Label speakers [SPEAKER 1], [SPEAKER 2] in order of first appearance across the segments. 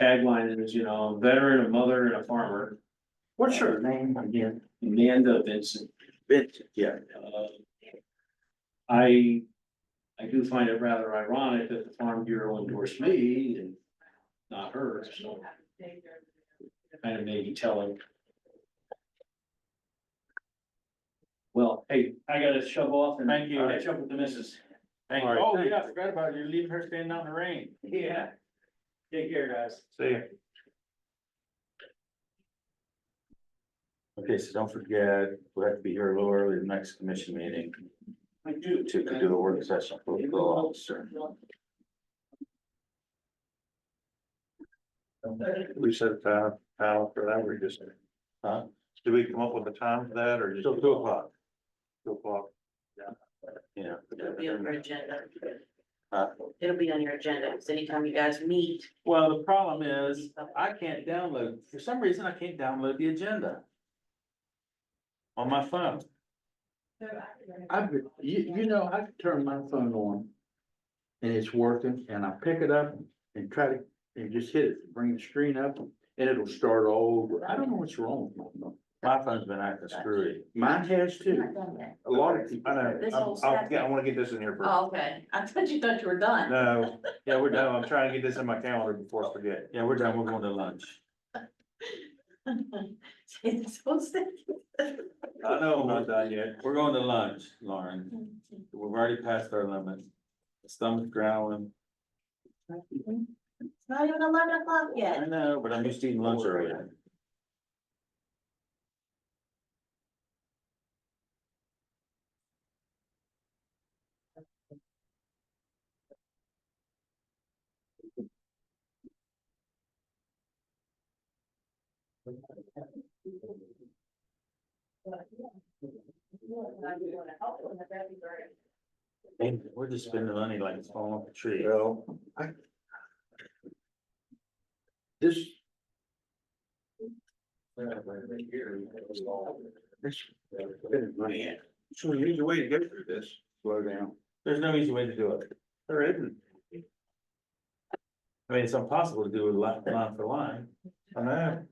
[SPEAKER 1] tagline is, you know, veteran, a mother and a farmer,
[SPEAKER 2] What's her name again?
[SPEAKER 1] Amanda Vincent.
[SPEAKER 2] Vincent, yeah.
[SPEAKER 1] Uh, I, I do find it rather ironic that the Farm Bureau endorsed me and not her, so. Kind of maybe telling. Well, hey, I gotta shove off and. Thank
[SPEAKER 2] you.
[SPEAKER 1] Catch up with the missus.
[SPEAKER 2] Thank you. Oh, yeah, I
[SPEAKER 1] forgot about you leaving her standing out in the rain. Yeah. Take care, guys.
[SPEAKER 2] See ya. Okay, so don't forget, we have to be here a little early, the next commission meeting
[SPEAKER 1] I do.
[SPEAKER 2] to do the work session for the officer.
[SPEAKER 3] We set a time, time for that, we just,
[SPEAKER 2] Huh?
[SPEAKER 3] do we come up with a time for that or just?
[SPEAKER 2] Till two o'clock,
[SPEAKER 3] Two o'clock.
[SPEAKER 2] yeah.
[SPEAKER 4] It'll be on your agenda.
[SPEAKER 2] Huh?
[SPEAKER 4] It'll be on your agenda, because anytime you guys meet.
[SPEAKER 2] Well, the problem is, I can't download, for some reason, I can't download the agenda. On my phone.
[SPEAKER 5] I, could- you, you know, I could turn my phone on. And it's working and I pick it up and try to, and just hit it, bring the screen up and it'll start all over. I don't know what's wrong with my phone.
[SPEAKER 2] My phone's been acting screwy.
[SPEAKER 5] Mine has too. A lot of people.
[SPEAKER 3] I know,
[SPEAKER 4] This
[SPEAKER 3] I'm-
[SPEAKER 4] whole
[SPEAKER 3] I'll,
[SPEAKER 4] stack.
[SPEAKER 3] yeah, I wanna get this in here first.
[SPEAKER 4] Oh, okay, I thought you thought you were done.
[SPEAKER 3] No,
[SPEAKER 2] Yeah, we're
[SPEAKER 3] no,
[SPEAKER 2] done.
[SPEAKER 3] I'm trying to get this in my calendar before I forget.
[SPEAKER 2] Yeah, we're done. We're going to lunch.
[SPEAKER 4] It's so sad.
[SPEAKER 3] I know, I'm not done yet.
[SPEAKER 2] We're going to lunch, Lauren. We've already passed our limit. Stomach growling.
[SPEAKER 4] It's not even eleven o'clock
[SPEAKER 2] I
[SPEAKER 4] yet.
[SPEAKER 2] know, but I'm used to eating lunch earlier. Hey, we're just spending money like it's falling off a tree.
[SPEAKER 3] Well,
[SPEAKER 5] This, this.
[SPEAKER 3] man, so there's a way to get through this.
[SPEAKER 5] Slow down.
[SPEAKER 2] There's no easy way to do it.
[SPEAKER 3] There isn't.
[SPEAKER 2] I mean, it's impossible to do it line, line for line.
[SPEAKER 3] I know.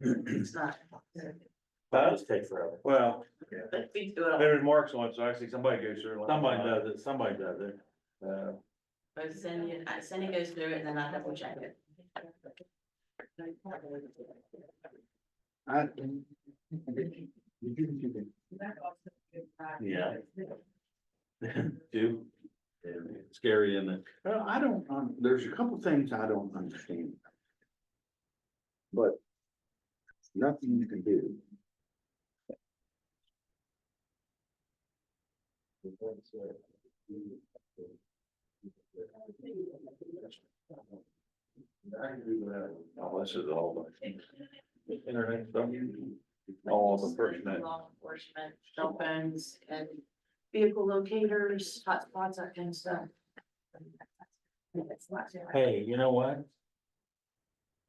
[SPEAKER 4] It's not.
[SPEAKER 2] That would take forever.
[SPEAKER 3] Well,
[SPEAKER 4] But we do it all.
[SPEAKER 3] there's marks on it, so actually somebody goes through. it.
[SPEAKER 2] Somebody does it, somebody does it.
[SPEAKER 3] Uh,
[SPEAKER 4] But Cindy, uh, Cindy goes through it and then I double check it.
[SPEAKER 5] I. Did you do that?
[SPEAKER 2] Yeah. Do. Scary, isn't it?
[SPEAKER 5] Well, I don't, um, there's a couple things I don't understand. But nothing you can do.
[SPEAKER 3] Oh, this is all the internet stuff. All the first net.
[SPEAKER 4] Law enforcement, cell phones and vehicle locators, hotspots, that kind of stuff.
[SPEAKER 2] Hey, you know what?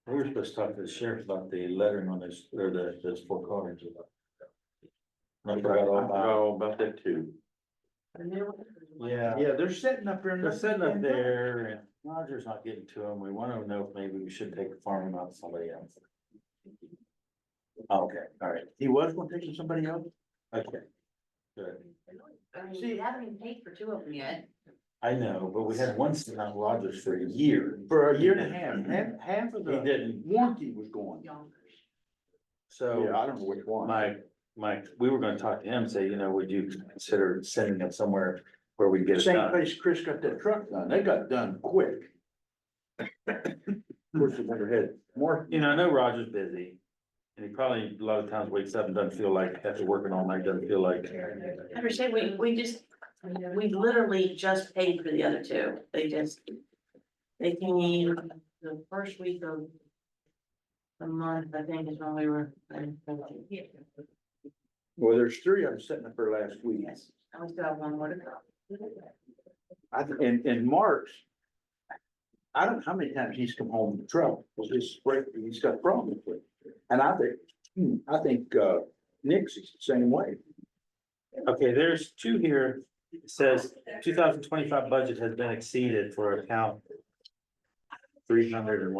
[SPEAKER 2] We were supposed to talk to the sheriff about the lettering on this, or the, those four cars. I forgot all
[SPEAKER 3] I forgot
[SPEAKER 2] about.
[SPEAKER 3] all about that too.
[SPEAKER 4] The new one.
[SPEAKER 2] Yeah,
[SPEAKER 5] Yeah, they're setting up there.
[SPEAKER 2] they're sitting up there and Roger's not getting to them. We want to know if maybe we should take the farm out to somebody else. Okay, all right,
[SPEAKER 5] He was gonna take it to somebody else?
[SPEAKER 2] okay. Good.
[SPEAKER 4] I mean, we haven't even paid for two of them yet.
[SPEAKER 2] I know, but we had one sitting on Rogers for a year.
[SPEAKER 5] For a year and a half, half, half of
[SPEAKER 2] He
[SPEAKER 5] the
[SPEAKER 2] didn't,
[SPEAKER 5] warranty was gone. Yeah,
[SPEAKER 4] Yonkers.
[SPEAKER 2] so
[SPEAKER 5] I don't know which one.
[SPEAKER 2] my, my, we were gonna talk to him, say, you know, would you consider sending him somewhere where we can get it
[SPEAKER 5] Same
[SPEAKER 2] done?
[SPEAKER 5] place Chris got that truck done, they got done quick. Of course, they never had more,
[SPEAKER 2] You know, I know Roger's busy. And he probably a lot of times wakes up and doesn't feel like, after working all night, doesn't feel like.
[SPEAKER 4] I understand, we, we just, we literally just paid for the other two, they just. They came the first week of. The month, I think is when we were. I
[SPEAKER 5] well, there's three of them setting up there last week.
[SPEAKER 4] we still have one more to go.
[SPEAKER 5] I, th- and, and Mark's. I don't know how many times he's come home in trouble, with this break, he's got problems with. And I think, hmm, I think, uh, Nick's is the same way.
[SPEAKER 2] Okay, there's two here. It says two thousand twenty-five budget has been exceeded for account. Three hundred and one.